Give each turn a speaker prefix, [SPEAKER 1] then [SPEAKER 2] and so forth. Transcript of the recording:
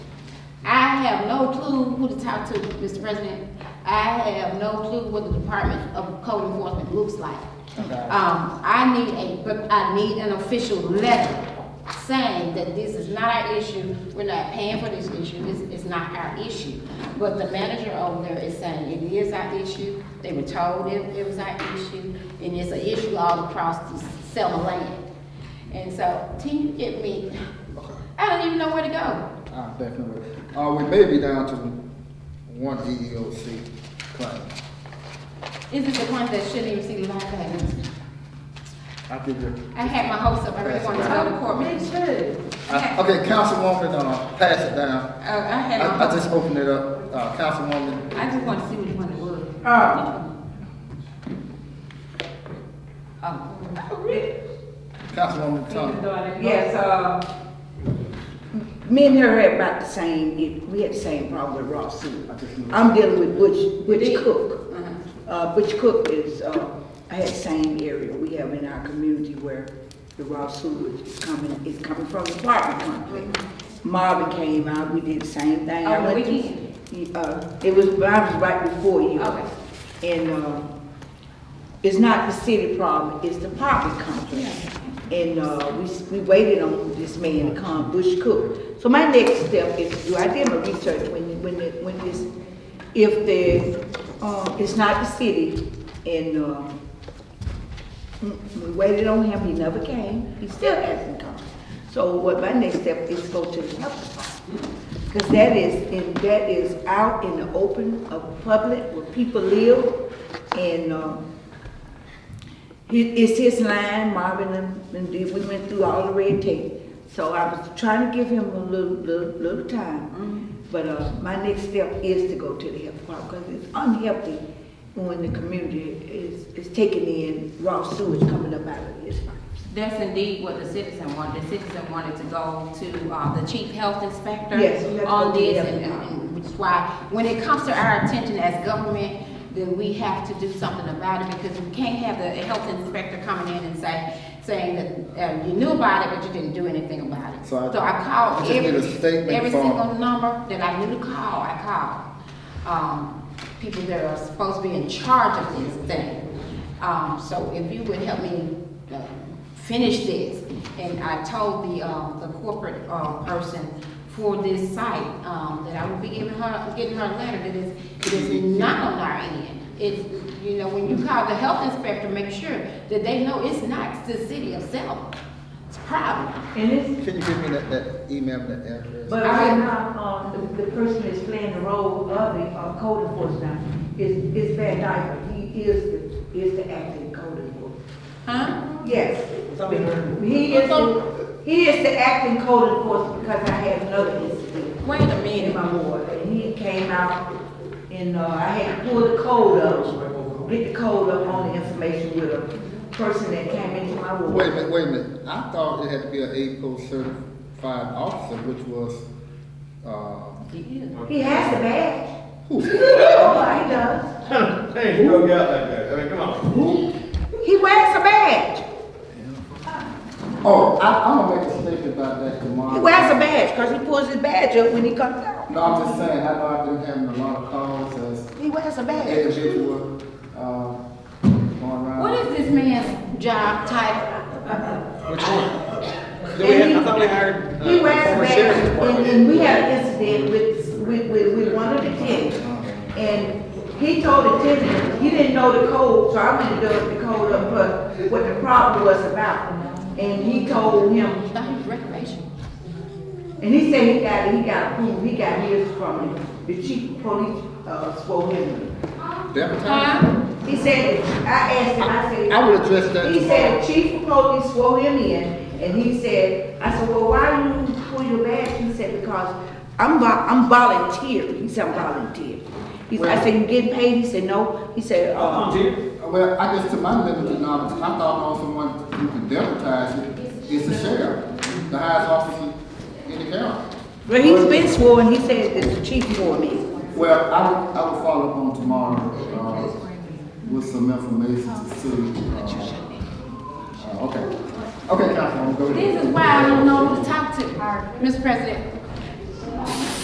[SPEAKER 1] have no clue who to talk to, Mr. President. I have no clue what the Department of Code Enforcement looks like. Um, I need a, but I need an official letter saying that this is not our issue, we're not paying for this issue, it's, it's not our issue. But the manager over there is saying it is our issue, they were told it, it was our issue, and it's an issue all across the Selma land. And so, can you get me, I don't even know where to go.
[SPEAKER 2] Ah, definitely. Uh, we may be down to one E EEOC claim.
[SPEAKER 1] Is it the one that shouldn't even see the light payments?
[SPEAKER 2] I give you.
[SPEAKER 1] I had my hopes up, I really wanted to go to court.
[SPEAKER 3] Me too.
[SPEAKER 2] I- Okay, Councilwoman, uh, pass it down.
[SPEAKER 1] Uh, I
[SPEAKER 2] I,
[SPEAKER 1] had my,
[SPEAKER 2] I just opened it up, uh, Councilwoman.
[SPEAKER 1] I just wanted to see which one it was.
[SPEAKER 3] Oh,
[SPEAKER 1] Oh,
[SPEAKER 2] Councilwoman Thomas.
[SPEAKER 3] yes, uh, me and her had about the same, it- we had the same problem with raw soup. I'm dealing with Butch, Butch Cook. Uh, Butch Cook is, uh, I had same area we have in our community where the raw sewage is coming, is coming from the apartment complex. Marvin came out, we did the same thing. I
[SPEAKER 1] On the
[SPEAKER 3] went to-
[SPEAKER 1] weekend?
[SPEAKER 3] Uh, it was, I was right before you.
[SPEAKER 1] Okay.
[SPEAKER 3] And, uh, it's not the city problem, it's the apartment complex. And, uh, we, s- we waited on this man to come, Bush Cook. So my next step is to do, I did my research when, when, it- when this, if the, uh, it's not the city and, uh, Mm, We waited on him, he never came, he still hasn't come. So what my next step is go to the health department. Because that is, in that is out in the open of public where people live and, um, he- it's his line, Marvin and, and did- we went through all the red tape. So I was trying to give him a little, little, little
[SPEAKER 4] Mm-hmm.
[SPEAKER 3] time. But, uh, my next step is to go to the health department, because it's unhealthy when the community is, is taking in raw sewage coming up out of this.
[SPEAKER 1] That's indeed what the citizen wanted. The citizen wanted to go to, uh, the chief health inspector
[SPEAKER 3] Yes, we have to
[SPEAKER 1] on
[SPEAKER 3] go to
[SPEAKER 1] this,
[SPEAKER 3] the
[SPEAKER 1] and,
[SPEAKER 3] FBI.
[SPEAKER 1] and which is why, when it comes to our attention as government, then we have to do something about it, because we can't have the health inspector coming in and say, saying that, uh, you knew about it, but you didn't do anything about it.
[SPEAKER 2] So I-
[SPEAKER 1] So I
[SPEAKER 2] I
[SPEAKER 1] called
[SPEAKER 2] just need
[SPEAKER 1] every,
[SPEAKER 2] a statement
[SPEAKER 1] every
[SPEAKER 2] from-
[SPEAKER 1] single number that I knew to call, I called. Um, people that are supposed to be in charge of this thing. Um, so if you would help me uh, finish this, and I told the, um, the corporate, uh, person for this site, um, that I would be giving her, getting her a letter that is, it is not on our end. It's, you know, when you call the health inspector, make sure that they know it's not the city of Selma. It's a problem.
[SPEAKER 4] And it's,
[SPEAKER 2] Can you give me that, that email, that address?
[SPEAKER 4] but right now, um, the, the person that's playing the role of the, uh, code enforcement is, is Van Dyke. He is, the is the acting code enforcement.
[SPEAKER 1] Huh?
[SPEAKER 4] Yes. He is, the- he is the acting code enforcement because I had another incident
[SPEAKER 1] Wait a
[SPEAKER 4] in
[SPEAKER 1] minute.
[SPEAKER 4] my ward. And he came out and, uh, I had to pull the code up, get the code up on the information with a person that came into my ward.
[SPEAKER 2] Wait a minute, wait a minute. I thought it had to be an APO certified officer, which was, uh,
[SPEAKER 4] He has the badge.
[SPEAKER 2] who?
[SPEAKER 4] Oh, he does.
[SPEAKER 5] Hey, you broke out like that. I mean, come on.
[SPEAKER 4] He wears a badge.
[SPEAKER 2] Oh, I, I'm gonna make a statement about that tomorrow.
[SPEAKER 4] He wears a badge, cause he pulls his badge up when he comes out.
[SPEAKER 2] No, I'm just saying, I know I've been having a lot of calls as
[SPEAKER 4] He wears a badge.
[SPEAKER 2] individual, uh, going around.
[SPEAKER 1] What is this man's job title?
[SPEAKER 5] Which one? Do we have, I thought we hired. uh,
[SPEAKER 4] He wears a
[SPEAKER 5] former sheriff's
[SPEAKER 4] badge,
[SPEAKER 5] department.
[SPEAKER 4] and, and we had an incident with, with, with, with one of the kids. And he told the tenant, he didn't know the code, so I went and dug the code up, but what the problem was about. And he told him,
[SPEAKER 1] Not his recreation.
[SPEAKER 4] and he said he got, he got approved, he got his from the chief of police, uh, swore him.
[SPEAKER 2] Democrat?
[SPEAKER 1] Huh?
[SPEAKER 4] He said, I asked him, I said.
[SPEAKER 2] I would address that
[SPEAKER 4] He
[SPEAKER 2] tomorrow.
[SPEAKER 4] said, chief of police swore him in, and he said, I said, well, why you pull your badge? He said, because I'm vo- I'm volunteer. He said, I'm volunteer. He said, I said, you getting paid? He said, no. He said,
[SPEAKER 5] I'll
[SPEAKER 4] uh,
[SPEAKER 5] come to you.
[SPEAKER 2] Well, I guess to my limited knowledge, I thought on someone who can democratize it, is the sheriff, the highest officer in the county.
[SPEAKER 4] but he's been sworn, he said that the chief swore me.
[SPEAKER 2] Well, I will, I will follow up on tomorrow, uh, with some information to see, uh, uh, okay. Okay, Councilwoman, go ahead.
[SPEAKER 1] This is why I don't know who to talk to, Mr. President.